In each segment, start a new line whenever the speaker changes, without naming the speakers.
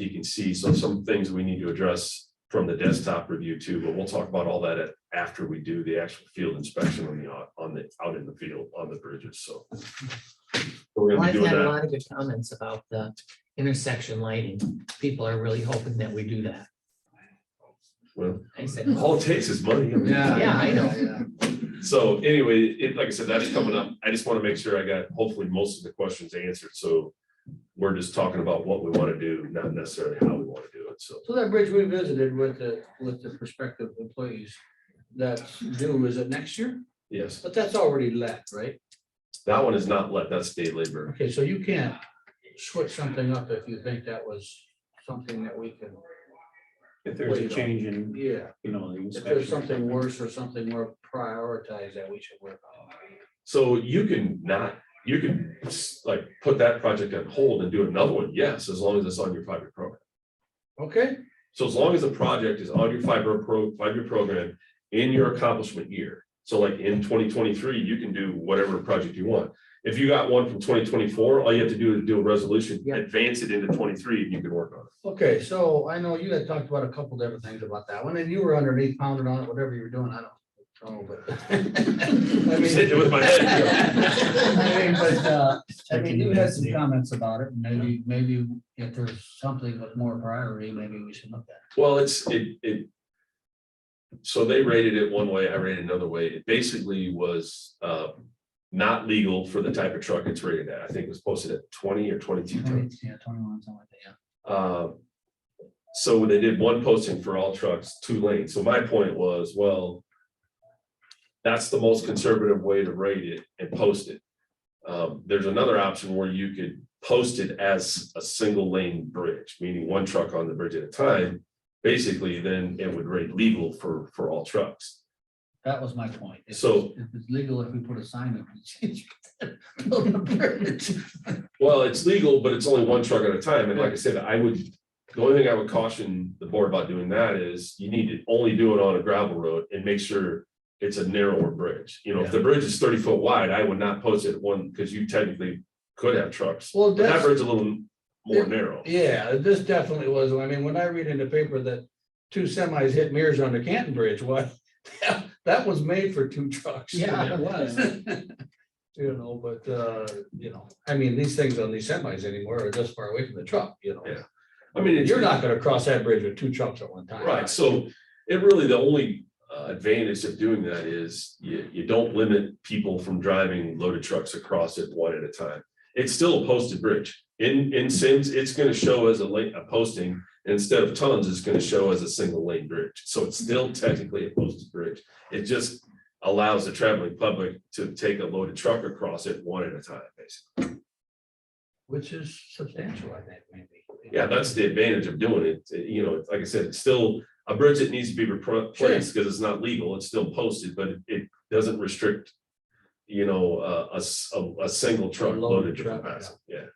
you can see, so some things we need to address from the desktop review too, but we'll talk about all that at- after we do the actual field inspection on the, out- on the, out in the field, on the bridges, so. We're
Well,
gonna be
I've
doing
had a
that,
lot of good comments about the intersection lighting. People are really hoping that we do that.
well,
I said, "Oh,
all it takes is money. I mean,
Yeah, I know.
So anyway, it, like I said, that is coming up. I just want to make sure I got hopefully most of the questions answered, so. We're just talking about what we want to do, not necessarily how we want to do it, so.
So that bridge we visited with the, with the prospective employees, that's due, is it next year?
Yes,
But that's already let, right?
that one is not let, that's day labor.
Okay, so you can't switch something up if you think that was something that we can,
If there's a
Wait, no.
change in,
yeah.
you know, the
If
inspection.
there's something worse or something more prioritized that we should work on.
So you can not, you can like put that project on hold and do another one, yes, as long as it's on your five-year program.
Okay,
So as long as the project is on your fiber pro, five-year program in your accomplishment year. So like in twenty twenty-three, you can do whatever project you want. If you got one from twenty twenty-four, all you have to do is do a resolution,
Yeah.
advance it into twenty-three, and you can work on it.
okay, so I know you had talked about a couple different things about that one, and you were underneath pounding on it, whatever you were doing, I don't know, but. I
I'm
mean-
Sitting with my
Oh,
head.
I mean, but, uh, I mean, you had some comments about it, maybe, maybe if there's something with more priority, maybe we should look at.
Well, it's, it, it. So they rated it one way, I rated another way. It basically was, uh, not legal for the type of truck it's rated at. I think it was posted at twenty or twenty-two
it.
tons.
Twenty- Yeah, twenty-one, something like that,
Um, So when they did one posting for all trucks, two lanes. So my point was, well, that's the most conservative way to rate it and post it. Um, There's another option where you could post it as a single lane bridge, meaning one truck on the bridge at a time. Basically, then it would rate legal for, for all trucks.
yeah. That was my point. If
So-
it's- If it's legal, if we put a sign up. it's- building a bridge.
Well, it's legal, but it's only one truck at a time. And like I said, I would, the only thing I would caution the board about doing that is you need to only do it on a gravel road and make sure it's a narrower bridge. You know, if the bridge is thirty foot wide, I would not post it one because you technically could have trucks.
Well,
But that
that's-
bridge is a little more narrow.
Yeah, this definitely was, I mean, when I read in the paper that two semis hit mirrors on the Canton Bridge, what? That was made for two trucks.
Yeah, it was.
You know, but, uh, you know, I mean, these things on these semis anymore are this far away from the truck, you know?
Yeah. I mean, it's-
You're not gonna cross that bridge with two trucks at one time.
Right, so it really, the only uh, advantage of doing that is you, you don't limit people from driving loaded trucks across it one at a time. It's still a posted bridge. In, in Sims, it's gonna show as a lane, a posting, instead of tons, it's gonna show as a single lane bridge. So it's still technically a posted bridge. It just allows the traveling public to take a loaded truck across it one at a time, basically.
Which is substantial, I think, maybe.
Yeah, that's the advantage of doing it. It- You know, like I said, it's still a bridge that needs to be repro- replaced because it's not legal, it's still posted, but it- it doesn't restrict. You know, uh, a, s- a- a single truck
loaded
loaded to
truck,
capacity, yeah.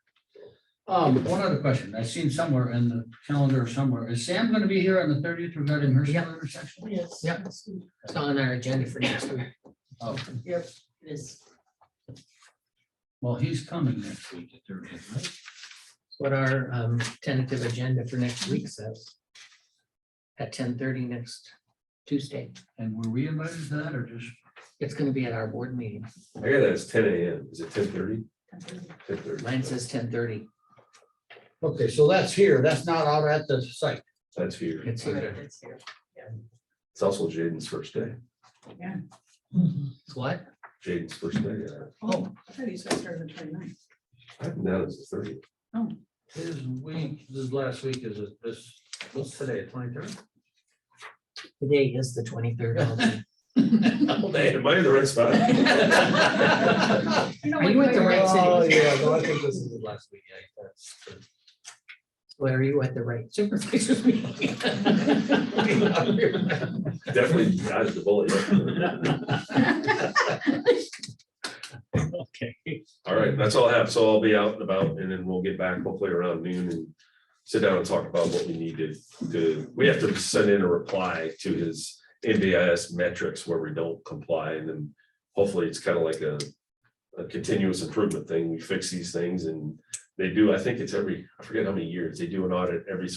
Um, one other question, I've seen somewhere in the calendar somewhere, is Sam gonna be here on the thirtieth regarding her
Yeah.
intersection?
Yes. Yep, it's on our agenda for next week.
Oh,
Yep. It is.
well, he's coming next week, the thirtieth, right?
What our um, tentative agenda for next week says. At ten thirty next Tuesday.
And were we invited to that or just?
It's gonna be at our board meeting.
I got that as ten AM, is it ten thirty?
10:30.
Ten thirty,
Mine says ten thirty.
Okay, so that's here. That's not out at the site.
that's here,
It's here.
it's also Jaden's first day,
It's what?
Jaden's first day, yeah.
Oh,
I thought you said started the 29th.
I think that is the thirty,
His week, this last week is this, what's today, twenty-third?
today is the twenty-third.
oh, man, am I in the right spot?
You know,
Are you
like
at the
my-
right
Oh,
city?
yeah, no, I think this is his last week. yeah, that's good.
Where are you at the right supervisor's meeting?
Definitely dodged the bullet.
Okay.
All right, that's all I have, so I'll be out and about, and then we'll get back hopefully around noon and sit down and talk about what we need to, to, we have to send in a reply to his NDIS metrics where we don't comply, and then hopefully it's kind of like a, a continuous improvement thing, we fix these things, and they do, I think it's every, I forget how many years, they do an audit every so